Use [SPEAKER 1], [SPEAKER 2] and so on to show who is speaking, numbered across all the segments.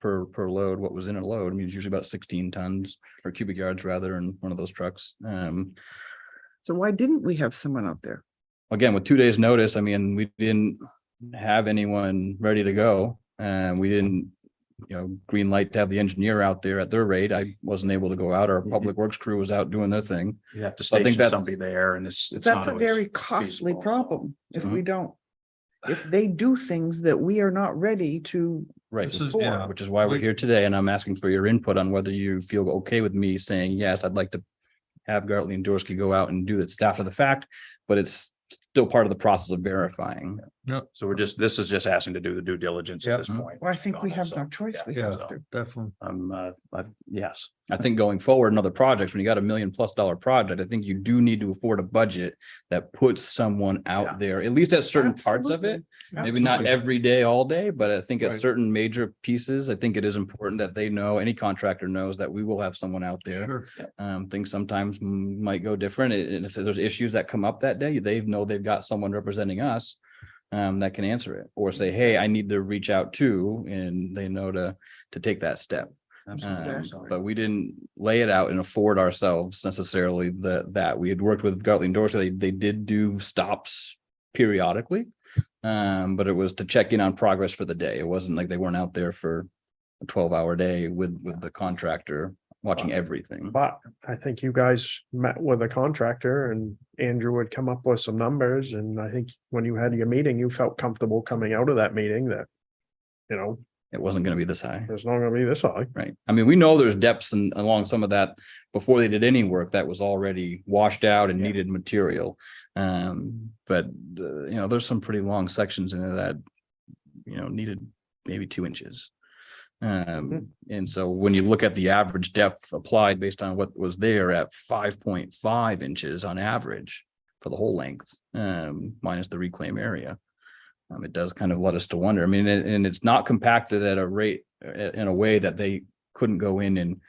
[SPEAKER 1] per, per load, what was in a load. I mean, it's usually about sixteen tons or cubic yards rather in one of those trucks. Um,
[SPEAKER 2] So why didn't we have someone out there?
[SPEAKER 1] again, with two days' notice, I mean, we didn't have anyone ready to go. And we didn't, you know, green light to have the engineer out there at their rate. I wasn't able to go out.
[SPEAKER 3] Mm-hmm.
[SPEAKER 1] Our public works crew was out doing their thing.
[SPEAKER 4] You have to
[SPEAKER 1] So I think
[SPEAKER 4] station
[SPEAKER 1] that's-
[SPEAKER 4] somebody there and it's, it's not
[SPEAKER 2] That's a very
[SPEAKER 4] always,
[SPEAKER 2] costly
[SPEAKER 4] feasible.
[SPEAKER 2] problem if we don't. If they do things that we are not ready to,
[SPEAKER 1] Right,
[SPEAKER 3] This is-
[SPEAKER 1] before,
[SPEAKER 3] yeah,
[SPEAKER 1] which is why we're
[SPEAKER 3] we-
[SPEAKER 1] here today, and I'm asking for your input on whether you feel okay with me saying, yes, I'd like to. Have Gartley and Dorsey go out and do this after the fact, but it's still part of the process of verifying.
[SPEAKER 4] so we're just, this is just asking to do the due diligence
[SPEAKER 3] Yeah.
[SPEAKER 4] at this point.
[SPEAKER 2] well, I think we
[SPEAKER 4] on it,
[SPEAKER 2] have
[SPEAKER 4] so,
[SPEAKER 2] no choice. We
[SPEAKER 3] Yeah,
[SPEAKER 2] have to.
[SPEAKER 3] definitely.
[SPEAKER 4] Um, uh, I- yes,
[SPEAKER 1] I think going forward in other projects, when you got a million plus dollar project, I think you do need to afford a budget. That puts someone
[SPEAKER 4] Yeah.
[SPEAKER 1] out there, at least at certain parts of it, maybe not
[SPEAKER 2] Absolutely.
[SPEAKER 1] every day, all day, but I think at
[SPEAKER 3] Right.
[SPEAKER 1] certain major pieces, I think it is important that they know, any contractor knows that we will have someone out there.
[SPEAKER 3] Sure.
[SPEAKER 1] Um, things sometimes m- might go different. and- And if there's issues that come up that day, they know they've got someone representing us. Um, that can answer it or say, hey, I need to reach out to, and they know to, to take that step.
[SPEAKER 5] Uh,
[SPEAKER 1] Um,
[SPEAKER 4] absolutely.
[SPEAKER 1] But we didn't lay it out and afford ourselves necessarily the, that we had worked with Gartley and Dorsey. They, they did do stops periodically. Um, but it was to check in on progress for the day. It wasn't like they weren't out there for a twelve hour day with, with the contractor watching everything.
[SPEAKER 5] But I think you guys met with a contractor and Andrew would come up with some numbers and I think when you had your meeting, you felt comfortable coming out of that meeting that. You know,
[SPEAKER 1] It wasn't gonna be this high.
[SPEAKER 5] it's not gonna be this high.
[SPEAKER 1] Right. I mean, we know there's depths and along some of that before they did any work that was already washed out and needed material. Um, but, uh, you know, there's some pretty long sections in there that, you know, needed maybe two inches. Um, and so when you look at the average depth applied based on what was there at five point five inches on average for the whole length, um, minus the reclaim area. Um, it does kind of let us to wonder. I mean, and, and it's not compacted at a rate, uh, in a way that they couldn't go in and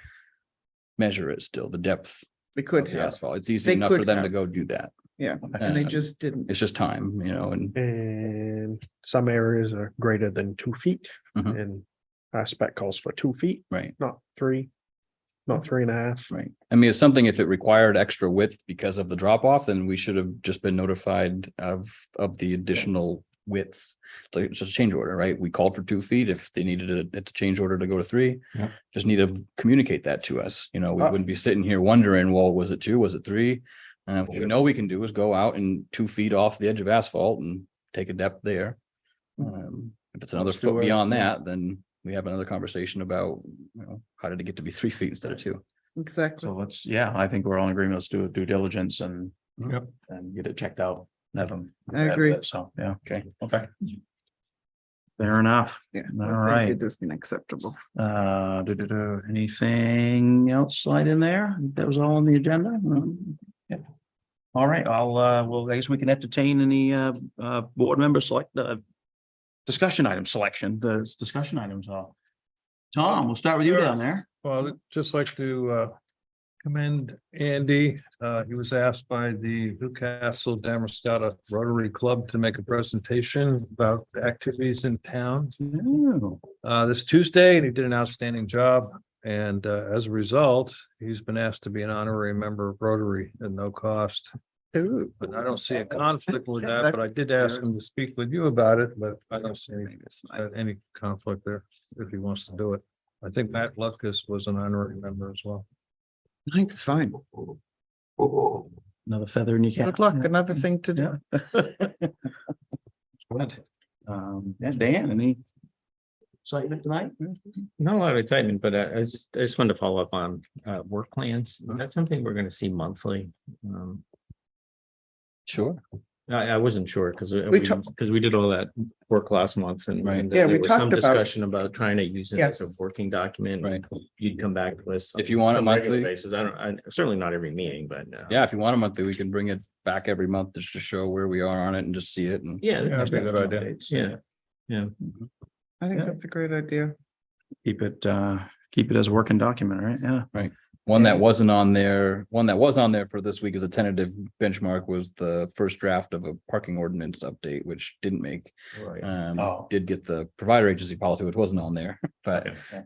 [SPEAKER 1] measure it still, the depth
[SPEAKER 2] We could
[SPEAKER 1] of the
[SPEAKER 2] have,
[SPEAKER 1] asphalt. It's easy
[SPEAKER 2] They
[SPEAKER 1] enough for
[SPEAKER 2] could
[SPEAKER 1] them to
[SPEAKER 2] have.
[SPEAKER 1] go do that.
[SPEAKER 2] yeah, and they
[SPEAKER 1] Um,
[SPEAKER 2] just didn't.
[SPEAKER 1] It's just time, you know, and
[SPEAKER 5] And some areas are greater than two feet
[SPEAKER 1] Mhm.
[SPEAKER 5] and our spec Mm-hmm. calls for two feet,
[SPEAKER 1] right,
[SPEAKER 5] not three. Not three and a half.
[SPEAKER 1] right. I mean, it's something if it required extra width because of the drop off, then we should have just been notified of, of the additional width. So it's just a change order, right? We called for two feet. If they needed it, it's a change order to go to three.
[SPEAKER 3] Yeah.
[SPEAKER 1] Just need to communicate that to us. You know, we
[SPEAKER 5] Uh,
[SPEAKER 1] wouldn't be sitting here wondering, well, was it two? Was it three? Uh, what we
[SPEAKER 5] Sure.
[SPEAKER 1] know we can do is go out and two feet off the edge of asphalt and take a depth there. Um, if it's another
[SPEAKER 3] Let's do
[SPEAKER 1] foot
[SPEAKER 3] it,
[SPEAKER 1] beyond
[SPEAKER 3] yeah.
[SPEAKER 1] that, then we have another conversation about, you know, how did it get to be three feet instead of two?
[SPEAKER 2] Exactly.
[SPEAKER 4] So let's, yeah, I think we're all in agreement. Let's do a due diligence and.
[SPEAKER 3] Yep.
[SPEAKER 4] And get it checked out. Have them.
[SPEAKER 2] I agree.
[SPEAKER 4] So, yeah.
[SPEAKER 1] Okay.
[SPEAKER 4] Okay. Fair enough.
[SPEAKER 2] Yeah.
[SPEAKER 4] All
[SPEAKER 2] I think
[SPEAKER 4] right.
[SPEAKER 2] It is unacceptable.
[SPEAKER 4] Uh, do, do, do, anything else slide in there? That was all on the agenda? Mm, yeah. All right, I'll, uh, well, I guess we can entertain any, uh, uh, board member select, uh, discussion item selection, the s- discussion items are. Tom, we'll start with you down there.
[SPEAKER 3] Well, I'd just like to uh, commend Andy. Uh, He was asked by the Newcastle Damascata Rotary Club to make a presentation about the activities in town
[SPEAKER 4] Ooh,
[SPEAKER 3] uh, this Tuesday, and he did an outstanding job. And uh, as a result, he's been asked to be an honorary member of Rotary at no cost.
[SPEAKER 2] Ooh.
[SPEAKER 3] But I don't see a conflict with that, but I did ask him to speak with you about it, but I don't see any uh, any conflict there if he wants to do it. I think Matt Lucas was an honorary member as well.
[SPEAKER 2] I think it's fine.
[SPEAKER 4] Another feather in your cap.
[SPEAKER 2] Good luck, another thing to do.
[SPEAKER 4] Good. Um, yeah, Dan, any excitement tonight?
[SPEAKER 6] Not a lot of excitement, but uh, I I was just, I just wanted to follow up on uh work plans. Is that something we're gonna see monthly? Um,
[SPEAKER 1] Sure.
[SPEAKER 6] I I wasn't sure because
[SPEAKER 2] We
[SPEAKER 6] we,
[SPEAKER 2] talked-
[SPEAKER 6] because we did all that work last month and.
[SPEAKER 1] Right.
[SPEAKER 6] and
[SPEAKER 2] Yeah, we
[SPEAKER 6] there was some
[SPEAKER 2] talked about it.
[SPEAKER 6] Discussion about trying to use it as
[SPEAKER 2] Yes.
[SPEAKER 6] a working document. and You'd come back to us.
[SPEAKER 1] If you want it
[SPEAKER 6] on a regular
[SPEAKER 1] monthly.
[SPEAKER 6] Basis, I don't, I certainly not every meeting, but. uh,
[SPEAKER 1] Yeah, if you want a monthly, we can bring it back every month just to show where we are on it and just see it and.
[SPEAKER 6] Yeah.
[SPEAKER 3] Yeah,
[SPEAKER 6] that's
[SPEAKER 3] that'd be a good idea.
[SPEAKER 6] updates, Yeah, yeah.
[SPEAKER 2] I think
[SPEAKER 4] Yeah.
[SPEAKER 2] that's a great idea.
[SPEAKER 4] Keep it, uh, keep it as a working document, right? Yeah.
[SPEAKER 1] One that wasn't on there, one that was on there for this week as a tentative benchmark was the first draft of a parking ordinance update, which didn't make.
[SPEAKER 6] Right.
[SPEAKER 1] Um,
[SPEAKER 4] Oh.
[SPEAKER 1] did get the provider agency policy, which wasn't on there, but
[SPEAKER 6] Okay.